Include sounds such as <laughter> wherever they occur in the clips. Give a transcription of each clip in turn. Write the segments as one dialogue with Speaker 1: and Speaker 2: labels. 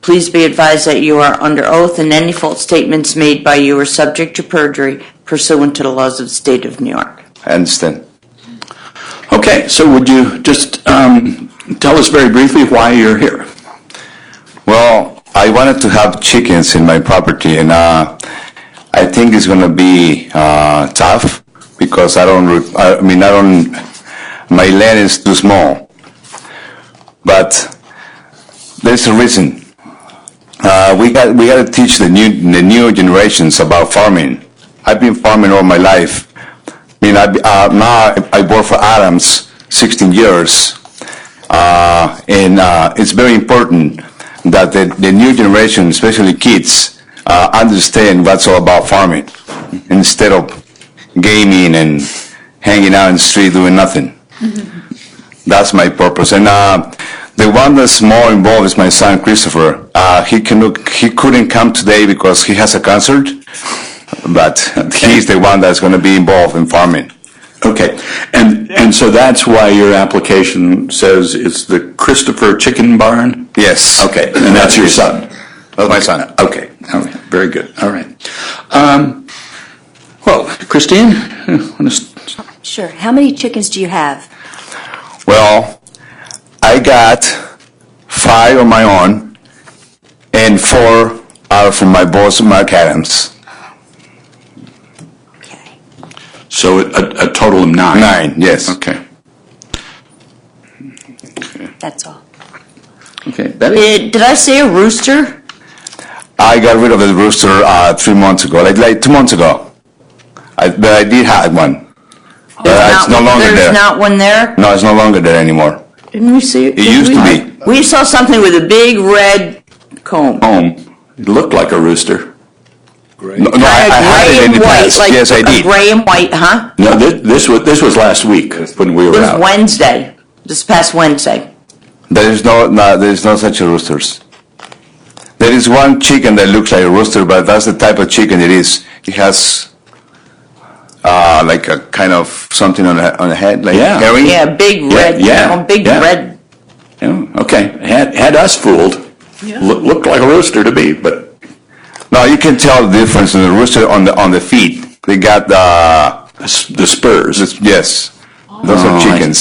Speaker 1: Please be advised that you are under oath and any false statements made by you are subject to perjury pursuant to the laws of the state of New York.
Speaker 2: I understand.
Speaker 3: Okay, so would you just um, tell us very briefly why you're here?
Speaker 2: Well, I wanted to have chickens in my property, and uh, I think it's gonna be uh, tough because I don't. re- I mean, I don't. My land is too small. But there's a reason. Uh, we got we got to teach the new the new generations about farming. I've been farming all my life. I mean, I, uh, now I, I work for Adams 16 years. and uh, it's very important that the, the new generation, especially kids, uh, understand what's all about farming instead of gaming and hanging out in the street doing nothing.
Speaker 3: Mm-hmm.
Speaker 2: That's my purpose. And uh, the one that's more involved is my son Christopher. Uh, he can he couldn't come today because he has a concert, but he's the one that's going to be involved in farming.
Speaker 3: Okay, and, and so that's why your application says it's the Christopher Chicken Barn?
Speaker 2: Yes.
Speaker 3: Okay, and that's your son?
Speaker 2: That's my son.
Speaker 3: Okay, all right, very good, all right. Um, Well, Christine, want to
Speaker 4: Sure. How many chickens do you have?
Speaker 2: Well, I got five on my own, and four are from my boss, Mark Adams.
Speaker 4: Okay.
Speaker 3: So a, a total of nine?
Speaker 2: Nine, yes.
Speaker 3: Okay,
Speaker 4: That's all.
Speaker 3: okay, that is,
Speaker 1: Uh, Did, did I say a rooster?
Speaker 2: I got rid of the rooster uh, three months ago, like, like two months ago. I, but I did have one. But Uh, it's no
Speaker 1: Not-
Speaker 2: longer
Speaker 1: There's
Speaker 2: there.
Speaker 1: not one there?
Speaker 2: no, it's no longer there anymore.
Speaker 1: Didn't we see? It
Speaker 2: used to be.
Speaker 1: We saw something with a big red comb.
Speaker 3: home, it looked like a rooster.
Speaker 2: No, no, I, I had
Speaker 1: gray
Speaker 2: it in
Speaker 1: and
Speaker 2: the
Speaker 1: white,
Speaker 2: past.
Speaker 1: like
Speaker 2: yes, I
Speaker 1: a
Speaker 2: did.
Speaker 1: gray and white, huh?
Speaker 3: No, this, this was, this was last week when we
Speaker 1: It
Speaker 3: were
Speaker 1: was
Speaker 3: out.
Speaker 1: Wednesday, this past Wednesday.
Speaker 2: There is no, no, there is no such roosters. There is one chicken that looks like a rooster, but that's the type of chicken it is. It has uh, like a kind of something on the, on the head, like
Speaker 3: Yeah.
Speaker 2: herring.
Speaker 1: Yeah, big
Speaker 3: Yeah,
Speaker 1: red,
Speaker 3: yeah,
Speaker 1: a big
Speaker 3: yeah.
Speaker 1: red.
Speaker 3: Yeah, okay, had, had us fooled. Loo- Looked like a rooster to me, but
Speaker 2: Now you can tell the difference in the rooster on the on the feet. They got uh,
Speaker 3: the s- the spurs.
Speaker 2: this- yes, those
Speaker 3: Oh, I
Speaker 2: are
Speaker 3: see.
Speaker 2: chickens.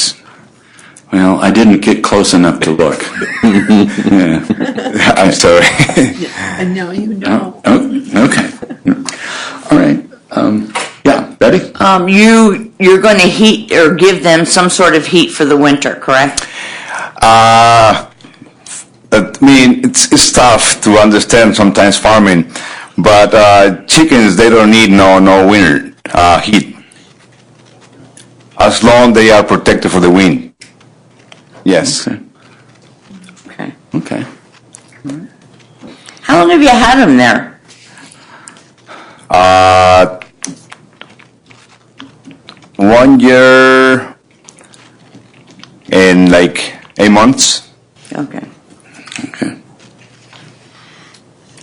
Speaker 3: Well, I didn't get close enough to look.
Speaker 2: <laughs> I'm sorry.
Speaker 3: <laughs>
Speaker 5: And now you know.
Speaker 3: Oh, okay. All right. Um, yeah, Betty?
Speaker 1: Um, you, you're going to heat or give them some sort of heat for the winter, correct?
Speaker 2: Uh, I mean, it's, it's tough to understand sometimes farming, but uh, chickens they don't need no no winter uh, heat. As long they are protected for the wind. Yes,
Speaker 3: Okay.
Speaker 1: Okay.
Speaker 3: Okay.
Speaker 1: How long have you had them there?
Speaker 2: one year and like eight months.
Speaker 1: Okay.
Speaker 3: Okay.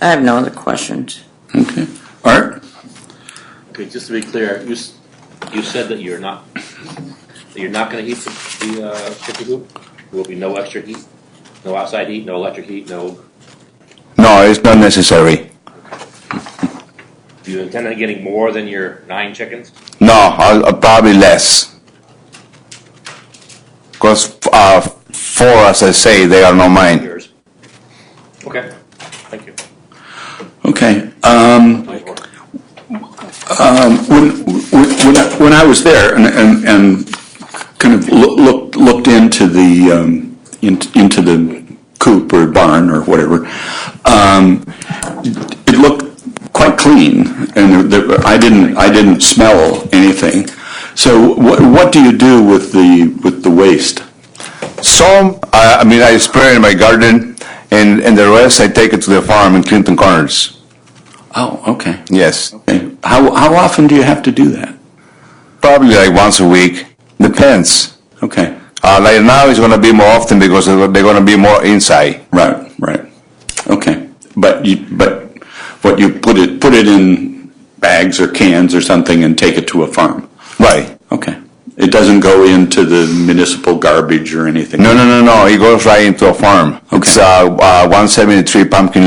Speaker 1: I have no other questions.
Speaker 3: Okay. Art?
Speaker 6: Okay, just to be clear, you, s- you said that you're not, that you're not gonna heat the, the, uh, chicken coop? There will be no extra heat, no outside heat, no electric heat, no,
Speaker 2: No, it's not necessary.
Speaker 6: do you intend on getting more than your nine chickens?
Speaker 2: No, I'll, I'll probably less. Because uh, four, as I say, they are not mine.
Speaker 6: Yours? Okay, thank you.
Speaker 3: Okay. Um, when, when, when I- when I was there and, and, and kind of loo- looked, looked into the, um, in- into the coop or barn or whatever, um, it looked quite clean and there- there- I didn't, I didn't smell anything. So what, what do you do with the, with the waste?
Speaker 2: Some, I, I mean, I spray in my garden, and, and the rest I take it to the farm in Clinton Corners.
Speaker 3: Oh, okay.
Speaker 2: Yes,
Speaker 3: Okay. How, how often do you have to do that?
Speaker 2: probably like once a week. Depends.
Speaker 3: Okay,
Speaker 2: Uh, like now, it's going to be more often because they're going to be more inside.
Speaker 3: right, right, okay. But you, but what you put it, put it in bags or cans or something and take it to a farm?
Speaker 2: Right.
Speaker 3: Okay. It- It doesn't go into the municipal garbage or anything?
Speaker 2: No, no, no, no, it goes right into a farm. It's, uh, uh, 173 Pumpkin